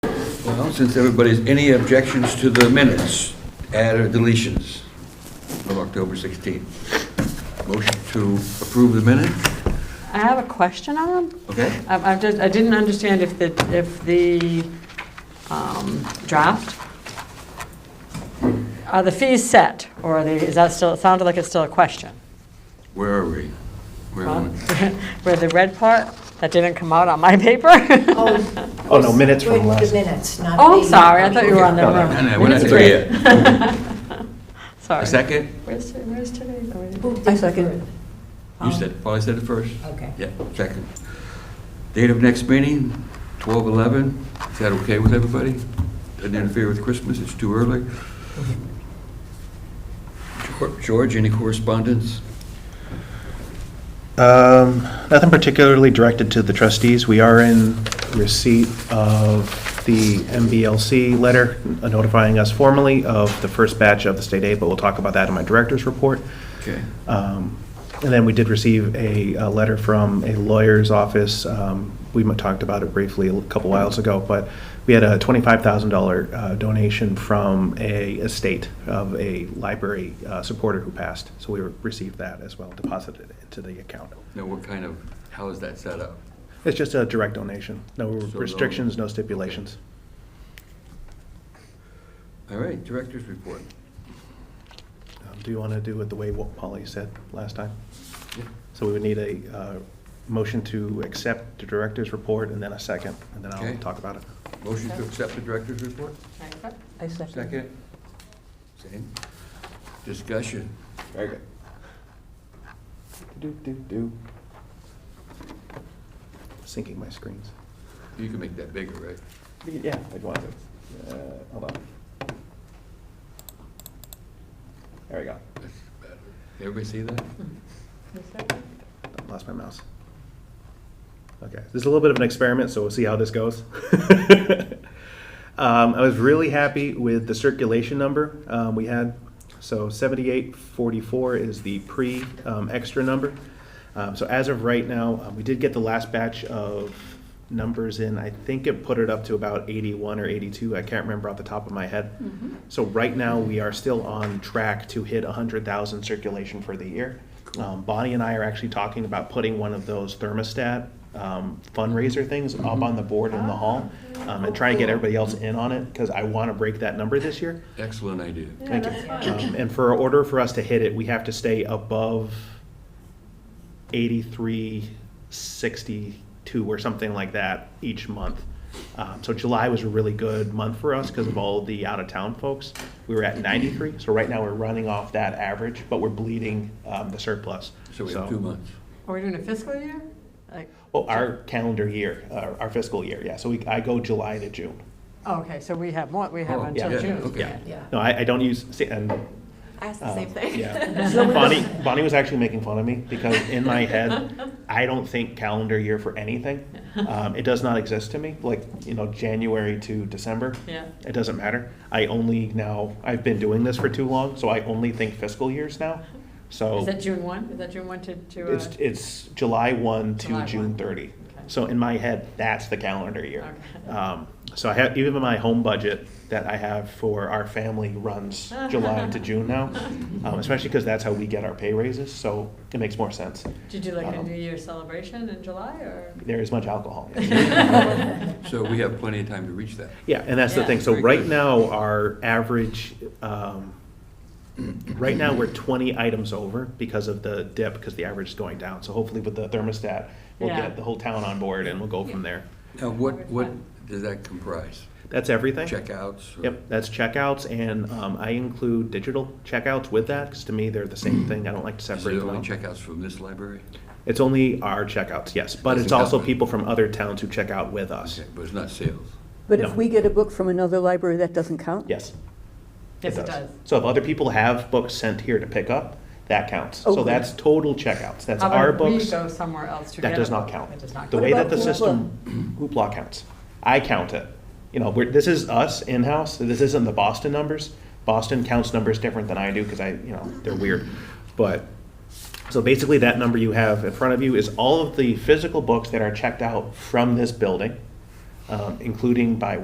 Well, since everybody's, any objections to the minutes, add or deletions from October 16th? Motion to approve the minute, I have a question on them. okay? I, I just, I didn't understand if the, if the um, draft, are the fees set, or are they, is that still, it sounded like it's still a question. Where are we? Where are we? Where the red part, that didn't come out on my paper? Oh, Oh, no, minutes from wait, last. The minutes, not the... Oh, I'm sorry, I thought you were on the No, no, room. no, no, we're not Minutes there were- Sorry. A second? Where's, where's Oh, today? Who did I second. it? You said, Polly said it first? Okay. Yeah, second. Date of next meeting, 12/11. Is that okay with everybody? Doesn't interfere with Christmas, it's too early. Geor- George, any correspondence? Um, Nothing particularly directed to the trustees. We are in receipt of the MBLC letter notifying us formally of the first batch of the state aid, but we'll talk about that in my director's report. Okay. Um, And then we did receive a, a letter from a lawyer's office. Um, We might talked about it briefly a couple whiles ago, but we had a $25,000 uh, donation from a estate of a library uh, supporter who passed. So we received that as well, deposited it into the account. Now, what kind of, how is that set up? It's just a direct donation. No no- restrictions, no stipulations. All right, director's report. Um, Do you want to do it the way what Polly said last time? So we would need a uh, motion to accept the director's report and then a second, and then Okay. I'll talk about it. Motion to accept the director's report? I second. Second? Same? Discussion? Very good. Do, do, do. Syncing my screens. You can make that bigger, right? Yeah. I'd want to, uh, hold on. There we go. That's better. Everybody see that? Oh, Lost my mouse. Okay, this is a little bit of an experiment, so we'll see how this goes. um, I was really happy with the circulation number um, we had. So 7844 is the pre um, extra number. Um, so as of right now, um, we did get the last batch of numbers in. I think it put it up to about 81 or 82. I can't remember off the top of my head. So right now, we are still on track to hit 100,000 circulation for the year. Um, Bonnie and I are actually talking about putting one of those thermostat um, fundraiser things up on the board in the hall um, and try to get everybody else in on it because I want to break that number this year. Excellent idea. Thank you. Um, And for order for us to hit it, we have to stay above eighty-three sixty-two or something like that each month. Um, so July was a really good month for us because of all the out-of-town folks. We were at ninety-three, so right now we're running off that average, but we're bleeding um, the surplus. So we have two months. Are we doing a fiscal year? Like, Well, Oh, our calendar year, uh, our our fiscal year, yeah. So we, I go July to June. oh, okay, so we have more, we have Oh, until yeah, June. okay. Yeah. Yeah. No, I, I don't use. See, and I asked the Um, same thing. Yeah. Bonnie, Bonnie was actually making fun of me because in my head, I don't think calendar year for anything. Um, it does not exist to me, like, you know, January to December. Yeah. It doesn't matter. I only now, I've been doing this for too long, so I only think fiscal years now. Is So that June 1? Is that June 1 to, to? uh, it's, it's July July one to 1. June thirty. Okay. So in my head, that's the calendar year. Okay. Um, so I have, even my home budget that I have for our family runs July to June now, um, especially because that's how we get our pay raises, so it makes more sense. Did you do like a Um, New Year celebration in July, or? There is much alcohol. So we have plenty of time to reach that. Yeah, and that's the Yeah. thing, so Very right good. now, our average, um, right now, we're twenty items over because of the dip, because the average is going down, so hopefully with the thermostat, we'll Yeah. get the whole town on board and we'll go from there. Now, what, what does that comprise? That's everything. Checkouts? or- Yep, that's checkouts, and um, I include digital checkouts with that, because to me, they're the same thing. I don't like to Is it separate them only out. checkouts from this library? It's only our checkouts, yes, but Doesn't it's also count. people from other towns who check out with us. Okay, But it's not sales. But No. if we get a book from another library, that doesn't count? Yes. Yes, it does. So if other people have books sent here to pick up, that counts. Oh, So good. that's total checkouts. That's How about our we books. go somewhere else to That get does a not book? count. It does not The count. way that the about system, Hoopla counts. I count it. You know, we're, this is us in-house, this isn't the Boston numbers. Boston counts numbers different than I do, because I, you know, they're weird. But, so basically that number you have in front of you is all of the physical books that are checked out from this building, um, including by